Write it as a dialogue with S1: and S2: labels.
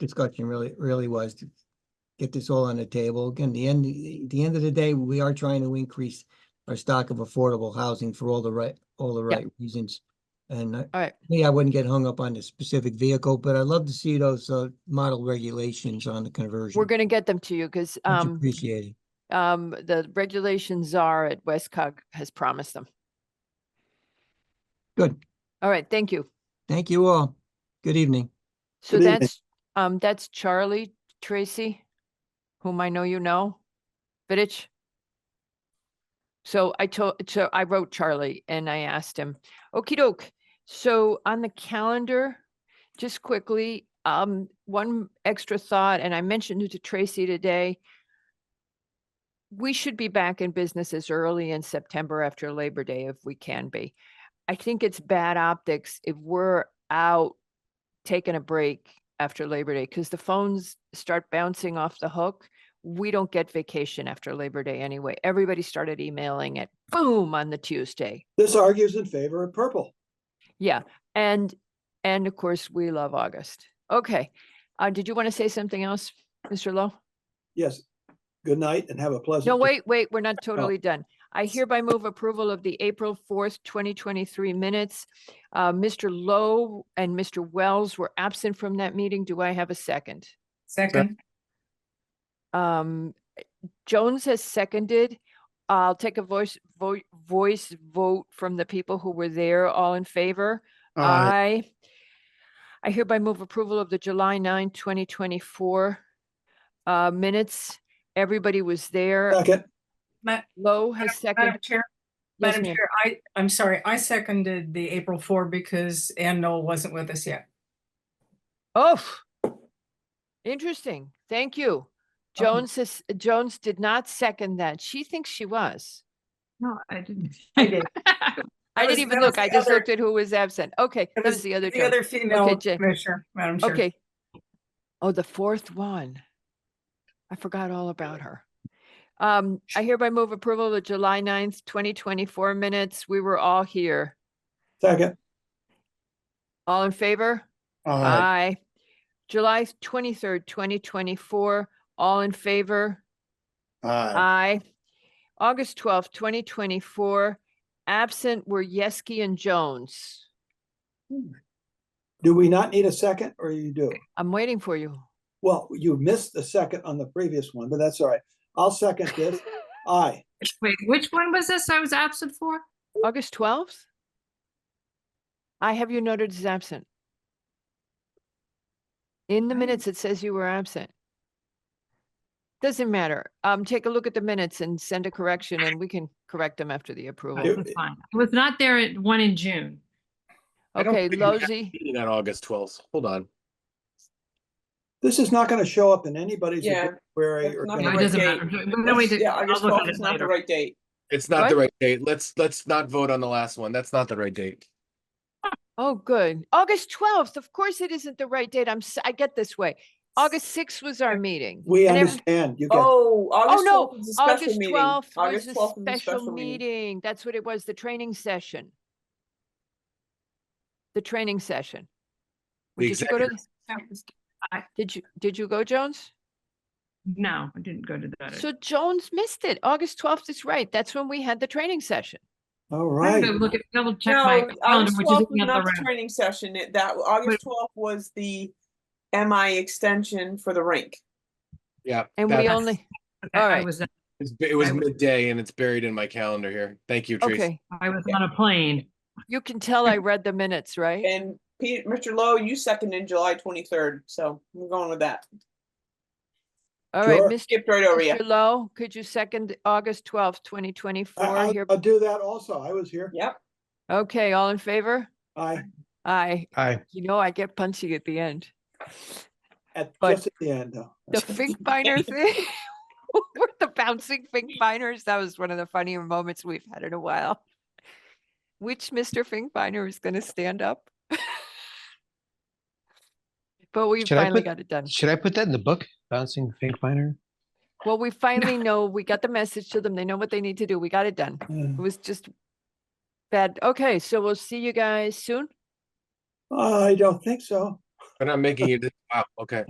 S1: discussion really, really was to get this all on the table. Again, the end, the end of the day, we are trying to increase our stock of affordable housing for all the right, all the
S2: Yeah.
S1: right reasons. And I-
S2: All right.
S1: me, I wouldn't get hung up on the specific vehicle, but I'd love to see those, uh, model regulations on the conversion.
S2: We're going to get them to you because
S1: Much
S2: um,
S1: Appreciated.
S2: um, the regulations are at Westcog has promised them.
S1: Good.
S2: All right, thank you.
S1: Thank you all. Good evening.
S2: So
S3: Good evening.
S2: that's, um, that's Charlie Tracy, whom I know you know, Vittich. So I told, so I wrote Charlie and I asked him, okey doke. So on the calendar, just quickly, um, one extra thought, and I mentioned it to Tracy today. We should be back in business as early in September after Labor Day if we can be. I think it's bad optics if we're out taking a break after Labor Day because the phones start bouncing off the hook. We don't get vacation after Labor Day anyway. Everybody started emailing it boom on the Tuesday.
S3: This argues in favor of purple.
S2: Yeah. And and of course we love August. Okay. Uh, did you want to say something else, Mr. Lowe?
S3: Yes. Good night and have a pleasant.
S2: No,
S3: day.
S2: wait, wait, we're not totally done. I hereby move approval of the April fourth, twenty twenty-three minutes. Uh, Mr. Lowe and Mr. Wells were absent from that meeting. Do I have a second?
S4: Second,
S2: Um, Jones has seconded. I'll take a voice, vote, voice vote from the people who were there. All in favor? Aye. I hereby move approval of the July 9, 2024 uh, minutes. Everybody was there.
S3: Second,
S4: Ma-
S2: Lowe has
S4: Madam
S2: seconded.
S4: Chair,
S2: Uh, Yes,
S4: Madam
S2: ma'am.
S4: Chair, I, I'm sorry, I seconded the April four because Ann Noel wasn't with us yet.
S2: Oh, interesting. Thank you.
S4: Uh-huh.
S2: Jones has, Jones did not second that. She thinks she was.
S4: No, I didn't. I did.
S2: I
S4: was-
S2: didn't even
S4: that was
S2: look. I
S4: the
S2: just
S4: other-
S2: looked at who was absent. Okay, that was the other
S4: The
S2: Jones.
S4: other female
S2: Jen.
S4: commissioner, Madam Chair.
S2: Okay. Oh, the fourth one. I forgot all about her. Um, I hereby move approval of the July 9th, twenty twenty-four minutes. We were all here.
S3: second.
S2: All in favor? Aye. July twenty-third, twenty twenty-four. All in favor? Aye. August twelfth, twenty twenty-four. Absent were Yeski and Jones.
S3: Do we not need a second or you do?
S2: I'm waiting for you.
S3: Well, you missed the second on the previous one, but that's all right. I'll second this. Aye.
S5: Wait, which one was this I was absent for?
S2: August twelfth? I have you noted as absent. In the
S4: Right.
S2: minutes, it says you were absent. Doesn't matter. Um, take a look at the minutes and send a correction and we can correct them after the approval.
S3: Yep.
S5: That's fine. I was not there at one in June.
S6: I don't
S2: Okay,
S6: think we have
S2: Lozy,
S6: meeting on August twelfth. Hold on.
S3: This is not going to show up in anybody's
S7: Yeah,
S3: query
S7: that's
S3: or.
S7: not
S5: No,
S7: the
S5: It
S7: right
S5: doesn't
S7: date.
S5: matter. No, we did-
S7: Yeah,
S5: I'll
S7: August
S5: look at
S7: twelfth
S5: it
S7: is not the
S5: later.
S7: right date.
S6: It's not the
S2: What?
S6: right date. Let's, let's not vote on the last one. That's not the right date.
S2: oh, good. August twelfth, of course it isn't the right date. I'm, s- I get this way. August sixth was our meeting.
S3: We
S2: and every-
S3: understand. You get,
S7: Oh,
S2: Oh,
S7: August
S2: no,
S7: twelfth is a special
S2: August
S7: meeting.
S2: twelfth was
S7: August
S2: a
S7: 12th is
S2: special meeting. That's what it was, the training session. The training session.
S6: The
S2: Did you go to,
S6: executive.
S5: That was-
S2: did you, did you go, Jones?
S5: No, I didn't go to that.
S2: So Jones missed it. August twelfth is right. That's when we had the training session.
S3: all
S5: I had
S3: right.
S5: to Look at, double check my
S7: No,
S5: calendar,
S7: August
S5: which
S7: twelfth
S5: is the
S7: was not
S5: other
S7: the
S5: round.
S7: training session. It, that, August twelfth was the MI extension for the rink.
S6: Yeah.
S2: And we
S6: that-
S2: only,
S5: Okay,
S2: All
S5: I
S2: right.
S5: was,
S6: it's- It was
S5: I was-
S6: midday and it's buried in my calendar here. Thank you, Tracy.
S2: okay,
S5: I was on a plane.
S2: you can tell I read the minutes, right?
S7: And Pete, Mr. Lowe, you seconded July twenty-third, so we're going with that.
S2: All right,
S3: Sure.
S2: Mr.
S7: Skipped right over you.
S2: Mr. Lowe, could you second August twelfth, twenty
S3: I-
S2: twenty-four
S3: I'll
S2: here?
S3: I'll do that also. I was here.
S7: Yep,
S2: Okay, all in favor?
S3: Aye.
S2: Aye.
S6: Aye.
S2: You know, I get punchy at the end.
S3: At
S2: But-
S3: just at the end though.
S2: the Finkbeiner thing. We're the bouncing Finkbeiners. That was one of the funnier moments we've had in a while. Which Mr. Finkbeiner is going to stand up? but we
S8: Should I
S2: finally
S8: put-
S2: got it done.
S8: Should I put that in the book? Bouncing Fink Miner?
S2: Well, we finally know. We got the message to them. They know what they need to do. We got it done. It
S3: Yeah.
S2: was just bad. Okay, so we'll see you guys soon.
S3: I don't think so.
S6: We're not making it. Wow. Okay.